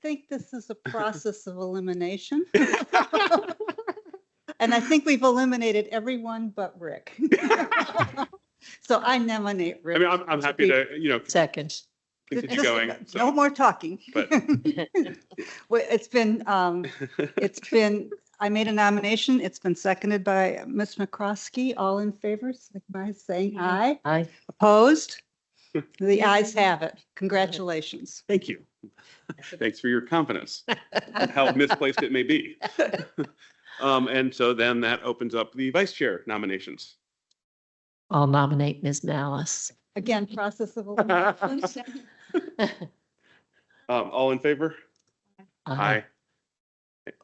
think this is a process of elimination. And I think we've eliminated everyone but Rick. So I nominate I Rick. mean, I'm, I'm happy to, you know, Second. continue going. No So, more talking. But- Well, it's been, um, it's been, I made a nomination. It's been seconded by Ms. McCroskey. All in favor, signify by saying aye. Aye. Opposed? The ayes have it. Congratulations. Thank you. Thanks for your confidence, how misplaced it may be. Um, and so then that opens up the vice chair nominations. I'll nominate Ms. Malice. Again, process of elimination. Um, all in favor? Aye.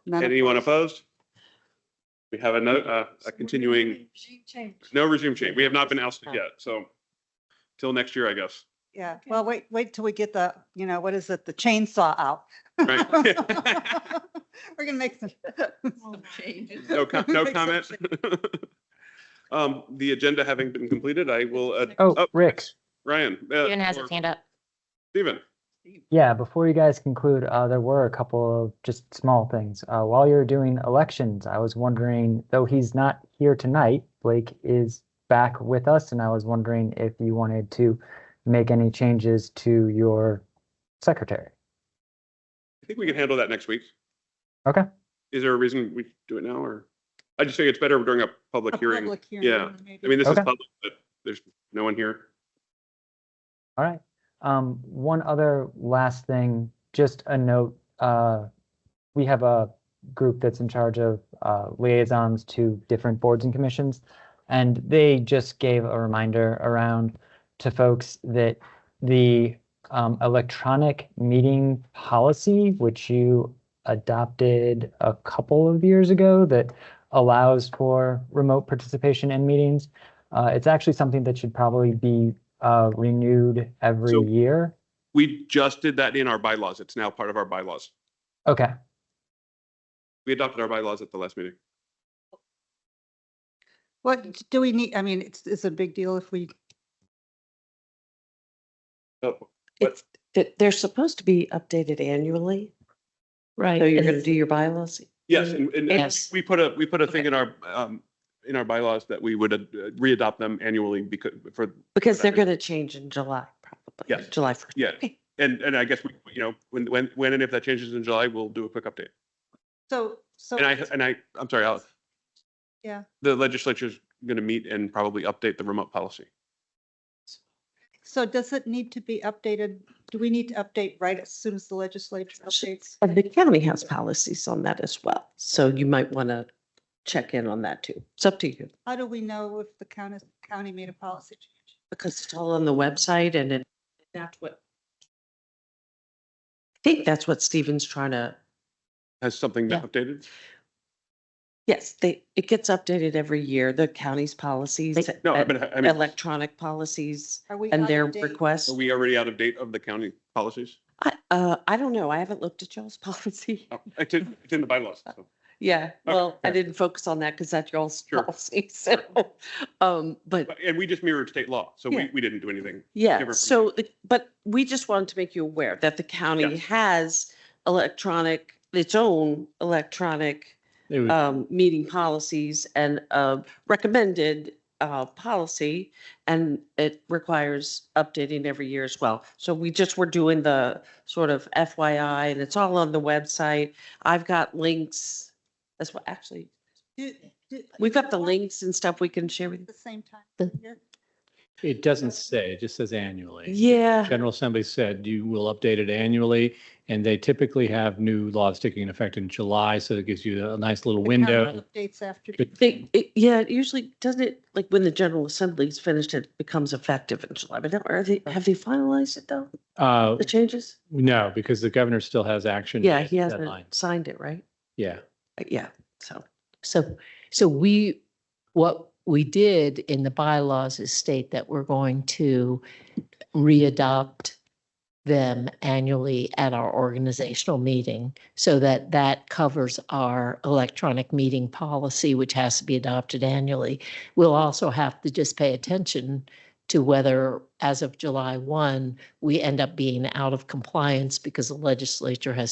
None of- Anyone opposed? We have another, uh, a continuing, no resume change. We have not been ousted yet, so till next year, I guess. Yeah, well, wait, wait till we get the, you know, what is it, the chainsaw out. Right? We're gonna make some. Oh, No, com- no Make some comment. change. Um, the agenda having been completed, I will, uh, Oh, Rick. Ryan. uh, Steven has or his hand up. Steven, Yeah, before you guys conclude, uh, there were a couple of just small things. Uh, while you're doing elections, I was wondering, though he's not here tonight, Blake is back with us, and I was wondering if you wanted to make any changes to your secretary. I think we can handle that next week. Okay. Is there a reason we do it now or? I just think it's better during a public a hearing. public hearing, Yeah. maybe. I mean, this is Okay. public, but there's no one here. All right. Um, one other last thing, just a note. Uh, we have a group that's in charge of uh, liaisons to different boards and commissions, and they just gave a reminder around to folks that the um, electronic meeting policy, which you adopted a couple of years ago, that allows for remote participation in meetings. Uh, it's actually something that should probably be uh, renewed every So- year. We just did that in our bylaws. It's now part of our bylaws. Okay. We adopted our bylaws at the last meeting. What do we need? I mean, it's, it's a big deal if we, Oh, What? It's, th- they're supposed to be updated annually, Right. so you're gonna do your bylaws. Yes, and, and- and Yes. we put a, we put a thing in our, um, in our bylaws that we would uh, readopt them annually because, for, Because they're gonna change in July, probably. Yes. July first. yeah. And, and I guess, we you know, when, when, when and if that changes in July, we'll do a quick update. so, so. And I, and I, I'm sorry, Alex. Yeah. The legislature's going to meet and probably update the remote policy. So does it need to be updated? Do we need to update right as soon as the legislature updates? And the county has policies on that as well, so you might wanna check in on that too. It's up to you, How do we know if the county, county made a policy change? because it's all on the website and it. That's what. I think that's what Stephen's trying to, Has something been Yeah. updated? yes, they, it gets updated every year, the county's policies. No, I uh, mean, I mean, Electronic policies Are we and out their of date? requests. are we already out of date of the county policies? I, uh, I don't know. I haven't looked at y'all's policy. Oh, It's in, it's in the bylaws. so. Yeah, well, I okay. didn't focus on that because that's y'all's Sure. policy, so, um, but But- And we just mirrored state law, so we, Yeah. we didn't do anything. yeah, different from so, the- but we just wanted to make you aware that the county has electronic, its own electronic It was, um, meeting policies and a recommended uh, policy, and it requires updating every year as well. So we just were doing the sort of FYI, and it's all on the website. I've got links. That's what, actually, Do- do- we've got do the you want links and stuff we can share at with you. The same time. The- here? it doesn't say, it just says annually. Yeah, General Assembly said you will update it annually, and they typically have new laws taking effect in July, so it gives you a nice little The county window. Updates after. Good. they, it, yeah, it usually doesn't it, like when the General Assembly's finished, it becomes effective in July. But now, are they, have they finalized it though, Uh, the changes? no, because the governor still has action. Yeah, he deadlines. hasn't signed it, right? Yeah, Uh, Yeah, so. So, so we, what we did in the bylaws is state that we're going to readopt them annually at our organizational meeting so that that covers our electronic meeting policy, which has to be adopted annually. We'll also have to just pay attention to whether, as of July 1, we end up being out of compliance because the legislature has